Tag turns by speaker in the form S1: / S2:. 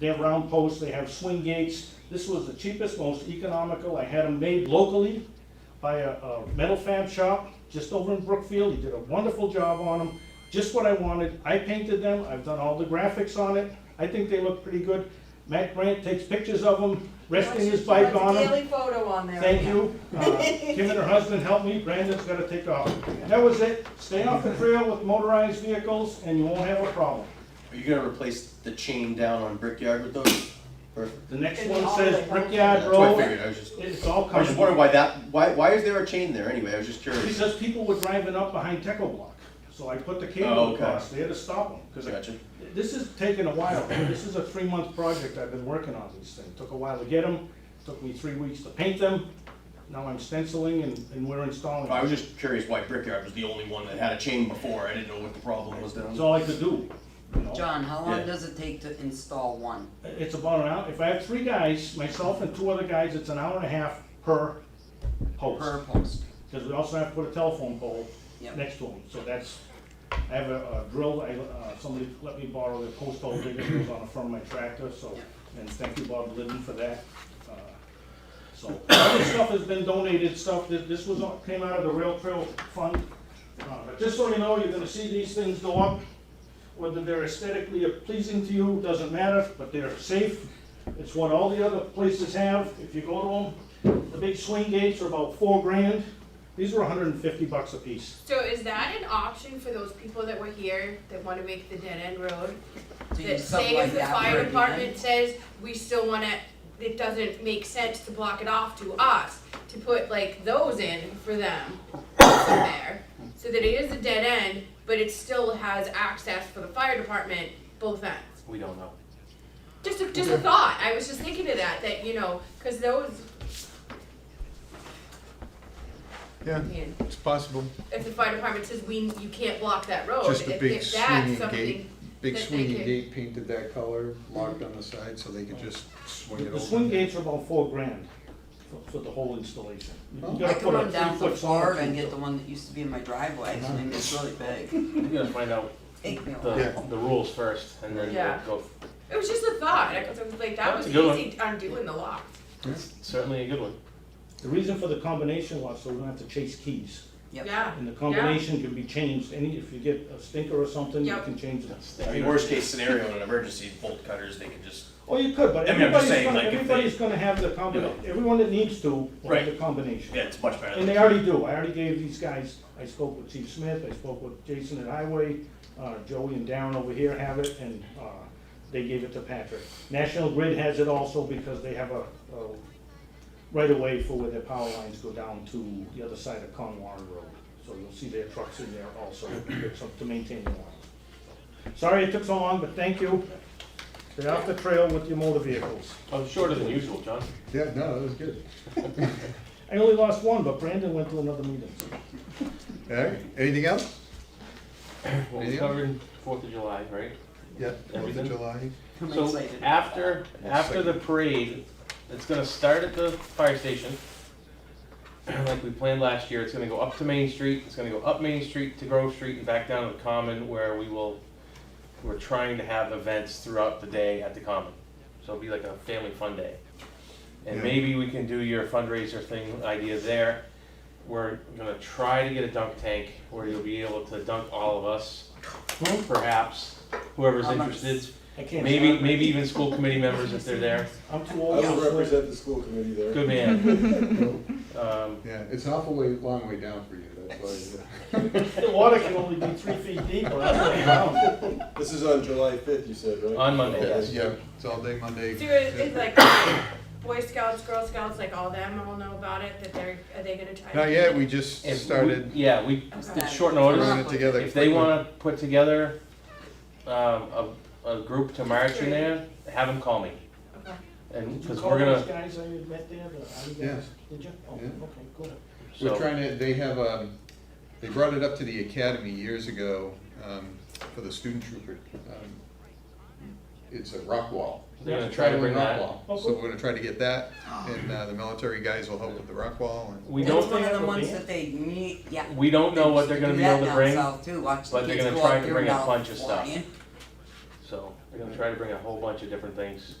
S1: They have round posts, they have swing gates. This was the cheapest, most economical. I had them made locally by a, a metal fab shop just over in Brookfield. He did a wonderful job on them, just what I wanted. I painted them, I've done all the graphics on it. I think they look pretty good. Matt Grant takes pictures of them, resting his bike on
S2: What's
S1: them.
S2: the daily photo on there?
S1: Thank you. Uh, Kim and her husband helped me, Brandon's gotta take off. That was it, stay off the trail with motorized vehicles and you won't have a problem.
S3: Are you gonna replace the chain down on Brickyard with those? Perfect.
S1: The next
S2: And
S1: one
S2: all the-
S1: says Brickyard
S3: That's what I
S1: Road,
S3: figured, I was just,
S1: it's all
S3: I was just
S1: coming.
S3: wondering why that, why, why is there a chain there anyway, I was just curious.
S1: Because people were driving up behind Teco Block, so I put the
S3: Oh,
S1: cable
S3: okay.
S1: across there to stop them. Because
S3: Gotcha.
S1: this is taking a while, this is a three-month project I've been working on these things. Took a while to get them, took me three weeks to paint them, now I'm stenciling and, and we're installing.
S3: I was just curious why Brickyard was the only one that had a chain before, I didn't know what the problem was down
S1: It's
S3: there.
S1: all I could do, you know?
S4: John, how
S3: Yeah.
S4: long does it take to install one?
S1: It's about an hour, if I have three guys, myself and two other guys, it's an hour and a half per
S4: Per
S5: Oh.
S1: post.
S4: post?
S1: Because we also have to put a telephone pole
S4: Yep.
S1: next to them, so that's, I have a a drill, I, uh, somebody let me borrow the post hole digger that was on the front of my tractor, so, and thank you Bob Glidden for that. Uh, So, other stuff has been donated, stuff, that this was, all- came out of the rail trail fund. Uh, But just so you know, you're gonna see these things go up, whether they're aesthetically pleasing to you, doesn't matter, but they're safe. It's what all the other places have, if you go to them. The big swing gates are about four grand. These are hundred and fifty bucks a piece.
S6: So is that an option for those people that were here that wanna make the dead end road?
S4: To
S6: That
S4: use something
S6: say
S4: like
S6: if the
S4: that
S6: fire
S4: where it
S6: department
S4: ends?
S6: says, we still wanna, it doesn't make sense to block it off to us, to put like those in for them from there. So that it is a dead end, but it still has access for the fire department, both ends.
S3: We don't know.
S6: Just a, just a thought, I was just thinking of that, that, you know, cause those,
S7: Yeah,
S6: I mean,
S7: it's possible.
S6: if the fire department says we, you can't block that road,
S7: Just a
S6: if-
S7: big
S6: if that's
S7: swinging gate.
S6: something
S7: Big
S6: that they
S7: swinging
S6: could-
S7: gate painted that color, marked on the side, so they could just swing it
S1: The
S7: over.
S1: swing gates are about four grand for, for the whole installation. You
S7: Oh.
S1: gotta
S4: I can
S1: put a
S4: run down to
S1: three-foot
S4: Florida and
S1: soffit.
S4: get the one that used to be in my driveway, I mean, it's really big.
S5: You gotta find out
S4: Take me a while.
S5: the, the rules first and then
S6: Yeah.
S5: we'll go.
S6: It was just a thought, I was like, that
S5: That's
S6: was
S5: a good one.
S6: easy undoing the lock.
S5: It's certainly a good one.
S1: The reason for the combination was so we don't have to chase keys.
S4: Yep.
S6: Yeah,
S1: And the combination can be changed, any, if you get a stinker or something, you
S6: Yep.
S1: can change it.
S5: That's
S3: I
S5: the-
S3: mean, worst case scenario, in an emergency, bolt cutters, they can just,
S1: Well, you could, but
S3: I mean, I'm just
S1: everybody's
S3: saying,
S1: gonna,
S3: like, if they-
S1: everybody's gonna have the combination, everyone that needs to will have the
S3: Right.
S1: combination.
S3: yeah, it's much better
S1: And
S3: than.
S1: they already do, I already gave these guys, I spoke with Chief Smith, I spoke with Jason at Highway, uh, Joey and Darren over here have it, and, uh, they gave it to Patrick. National Grid has it also because they have a, a right-of-way for where their power lines go down to the other side of Conwar Road. So you'll see their trucks in there also, it's up to maintain the lines. Sorry it took so long, but thank you. Stay off the trail with your motor vehicles.
S5: Oh, shorter than usual, John.
S7: Yeah, no, that was good.
S1: I only lost one, but Brandon went to another meeting.
S7: All right, anything else?
S5: Well, we
S7: Yeah.
S5: covered Fourth of July, right?
S7: Yeah, Fourth
S5: Everything.
S7: of July.
S4: I'm
S5: So
S4: excited.
S5: after, after the parade, it's gonna start at the fire station. Like we planned last year, it's gonna go up to Main Street, it's gonna go up Main Street to Grove Street and back down to the Common where we will, we're trying to have events throughout the day at the Common. So it'll be like a family fun day. And
S7: Yeah.
S5: maybe we can do your fundraiser thing idea there. We're gonna try to get a dunk tank where you'll be able to dunk all of us, perhaps, whoever's
S4: How much?
S5: interested.
S1: I can't.
S5: Maybe, maybe even school committee members if they're there.
S1: I'm too
S8: I
S1: old.
S8: will represent the school committee there.
S5: Good man. Um,
S7: Yeah, it's an awful way, long way down for you, that's why.
S1: The water can only be three feet deep or that's what I found.
S8: This is on July fifth, you said, right?
S5: On Monday,
S8: Okay.
S5: yes.
S7: Yeah, it's all day Monday.
S6: do it, it's like Boy Scouts, Girl Scouts, like all them all know about it, that they're, are they gonna try? to-
S7: Not yet, we just
S5: if we-
S7: started
S5: Yeah, we, it's short notice.
S7: throwing it together.
S5: If they
S7: quickly.
S5: wanna put together, um, a, a group to march in there, have them call me.
S6: Okay.
S5: And,
S1: Did you
S5: cause
S1: call
S5: we're
S1: those
S5: gonna,
S1: guys I had met there, the Army
S7: Yeah.
S1: guys? Did you? Oh, okay,
S7: Yeah.
S1: cool.
S7: We're
S5: so,
S7: trying to, they have, um, they brought it up to the academy years ago, um, for the student trooper. um, It's a rock wall.
S5: They're gonna try to
S7: Traveling
S5: bring
S7: rock
S5: that.
S7: wall.
S1: Oh,
S7: So
S1: cool.
S7: we're gonna try to get that, and, uh, the military guys will help with the rock wall and.
S5: we
S4: That's
S5: don't,
S4: one of
S1: think
S4: the
S1: it
S4: ones
S1: will
S4: that they need, yeah.
S5: we don't know what
S4: They
S5: they're gonna
S4: do
S5: be
S4: that
S5: able to
S4: down
S5: bring,
S4: south too. Watch the
S5: but they're
S4: kids
S5: gonna
S4: go
S5: try
S4: out
S5: to
S4: there
S5: bring a
S4: now
S5: bunch of stuff.
S4: flying.
S5: so, We're gonna try to bring a whole bunch of different things